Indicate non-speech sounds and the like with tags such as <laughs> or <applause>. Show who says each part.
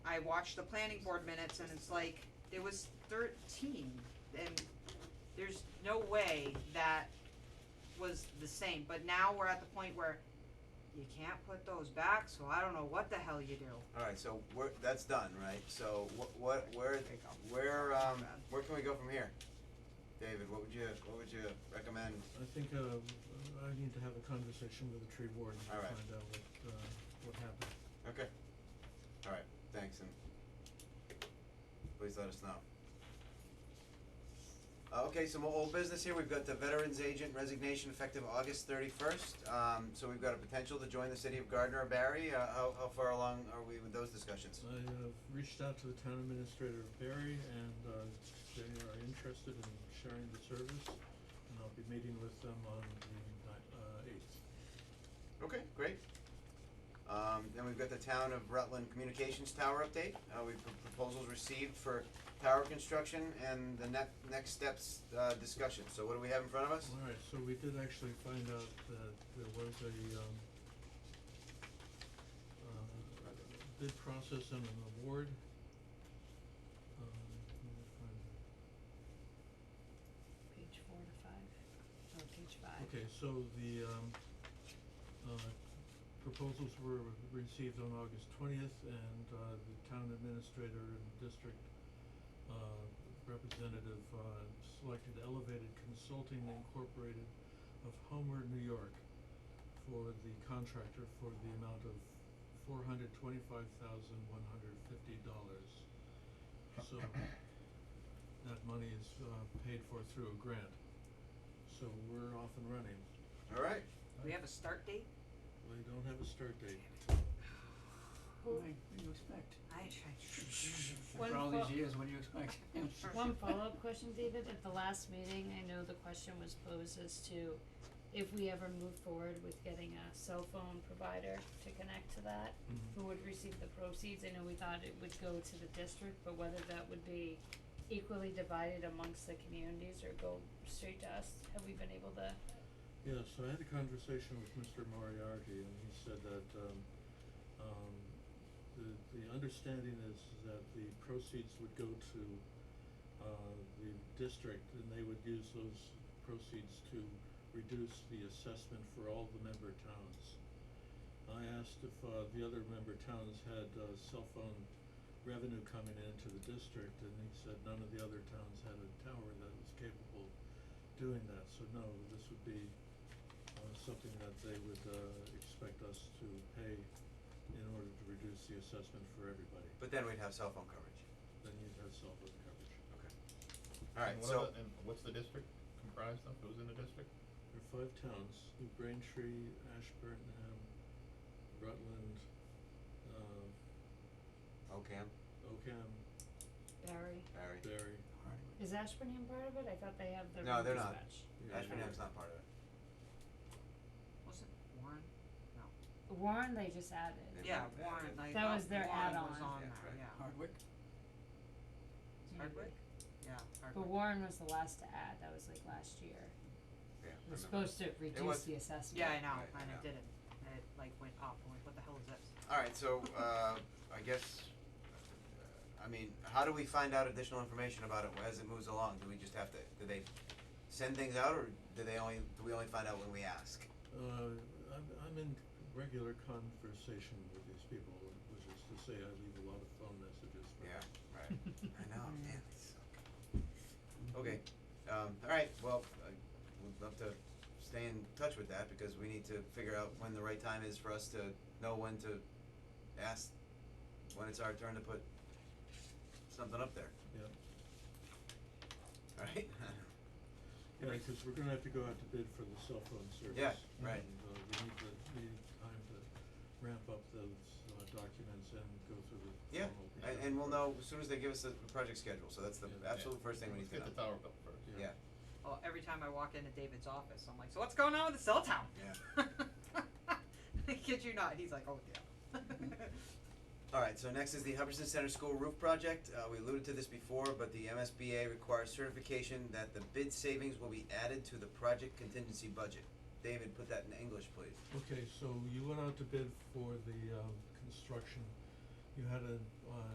Speaker 1: I watched the planning board minutes and it's like, there was thirteen, and there's no way that was the same, but now we're at the point where you can't put those back, so I don't know what the hell you do.
Speaker 2: Alright, so we're, that's done, right? So what, what, where, where, um, where can we go from here? David, what would you, what would you recommend?
Speaker 3: I think uh I need to have a conversation with the tree warden to
Speaker 2: All right.
Speaker 3: find out what uh what happened.
Speaker 2: Okay. Alright, thanks and please let us know. Uh, okay, some more old business here. We've got the veterans agent resignation effective August thirty-first. Um, so we've got a potential to join the city of Gardner or Barry. Uh, how, how far along are we with those discussions?
Speaker 3: I have reached out to the town administrator of Barry and uh they are interested in sharing the service and I'll be meeting with them on the ni- uh eighth.
Speaker 2: Okay, great. Um, then we've got the town of Rutland Communications Tower update, uh, we've pr- proposals received for tower construction and the next, next steps, uh, discussion, so what do we have in front of us?
Speaker 3: Alright, so we did actually find out that there was a um uh bid process and an award. Um let me find it.
Speaker 4: Page four to five, or page five.
Speaker 3: Okay, so the um uh proposals were received on August twentieth and uh the town administrator and district uh representative uh selected Elevated Consulting Incorporated of Homer, New York for the contractor for the amount of four hundred twenty-five thousand one hundred fifty dollars. So that money is uh paid for through a grant. So we're off and running.
Speaker 2: Alright,
Speaker 1: We have a start date?
Speaker 3: We don't have a start date.
Speaker 5: What do you expect?
Speaker 1: I, I,
Speaker 4: One
Speaker 5: After all
Speaker 4: fo-
Speaker 5: these years, what do you expect?
Speaker 4: One follow-up question, David, at the last meeting, I know the question was posed as to if we ever move forward with getting a cell phone provider to connect to that,
Speaker 2: Mm-hmm.
Speaker 4: who would receive the proceeds, I know we thought it would go to the district, but whether that would be equally divided amongst the communities or go straight to us, have we been able to?
Speaker 3: Yeah, so I had a conversation with Mr. Moriarty and he said that um um the the understanding is that the proceeds would go to uh the district and they would use those proceeds to reduce the assessment for all the member towns. I asked if uh the other member towns had uh cell phone revenue coming into the district and he said none of the other towns had a tower that was capable doing that, so no, this would be uh something that they would uh expect us to pay in order to reduce the assessment for everybody,
Speaker 2: but then we'd have cell phone coverage,
Speaker 3: then you'd have cell phone coverage.
Speaker 2: alright,
Speaker 6: And what
Speaker 2: so,
Speaker 6: other- And what's the district comprised of, who's in the district?
Speaker 3: There are five towns, New Braintree, Ashburnham, Rutland, uh
Speaker 2: okay,
Speaker 3: Ocam,
Speaker 4: Barry,
Speaker 2: Oh, Barry,
Speaker 3: Barry,
Speaker 2: alright,
Speaker 4: is Ashburnham part of it? I thought they have their
Speaker 2: No,
Speaker 4: own
Speaker 2: they're not.
Speaker 4: dispatch.
Speaker 3: yeah.
Speaker 2: Ashburnham's not part of it,
Speaker 1: wasn't Warren?
Speaker 4: Warren, they just added.
Speaker 2: They
Speaker 1: Yeah,
Speaker 2: might have added
Speaker 1: Warren,
Speaker 2: it.
Speaker 1: like,
Speaker 4: That
Speaker 1: uh,
Speaker 4: was their
Speaker 1: Warren was
Speaker 4: add-on.
Speaker 1: on there,
Speaker 2: Yeah, that's right.
Speaker 1: yeah.
Speaker 5: Hardwick?
Speaker 1: Hardwick? Yeah, Hardwick.
Speaker 4: But Warren was the last to add, that was like last year.
Speaker 2: yeah,
Speaker 4: It
Speaker 2: I
Speaker 4: was
Speaker 2: remember.
Speaker 4: supposed to
Speaker 2: was-
Speaker 4: reduce the assessment.
Speaker 1: Yeah, I know,
Speaker 2: Right, I
Speaker 1: and
Speaker 2: know.
Speaker 1: it didn't, it like went up, I'm like, what the hell is this?
Speaker 2: Alright, so, uh, I guess, uh, I mean, how do we find out additional information about it as it moves along? Do we just have to, do they send things out or do they only, do we only find out when we ask?
Speaker 3: Uh, I'm, I'm in regular conversation with these people, which is to say I leave a lot of phone messages for
Speaker 2: Yeah, right.
Speaker 4: <laughs>
Speaker 2: I know, man, it's so. Okay, um, alright, well, I would love to stay in touch with that because we need to figure out when the right time is for us to know when to ask, when it's our turn to put something up there,
Speaker 3: Yeah.
Speaker 2: alright? <laughs>
Speaker 3: Yeah, cause we're gonna have to go out to bid for the cell phone service.
Speaker 2: Yeah, right.
Speaker 3: And, uh, we need the, we need time to ramp up those, uh, documents and go through the
Speaker 2: Yeah,
Speaker 3: formal
Speaker 2: And,
Speaker 3: procurement
Speaker 2: and we'll know
Speaker 3: process.
Speaker 2: as soon as they give us the project schedule, so that's the
Speaker 3: Yeah.
Speaker 2: absolute first thing we need to
Speaker 6: Let's
Speaker 2: know.
Speaker 6: get the tower built first.
Speaker 2: Yeah,
Speaker 1: Well, Oh, every time I walk into David's office, I'm like, so what's going on with the cell tower? Yeah. Kid you not, he's <laughs> like, oh, yeah. <laughs>
Speaker 2: alright, so next is the Hubbardson Center School Roof Project, uh, we alluded to this before, but the MSBA requires certification that the bid savings will be added to the project contingency budget. David, put that in English, please.
Speaker 3: Okay, so you went out to bid for the, um, construction, you had a, uh,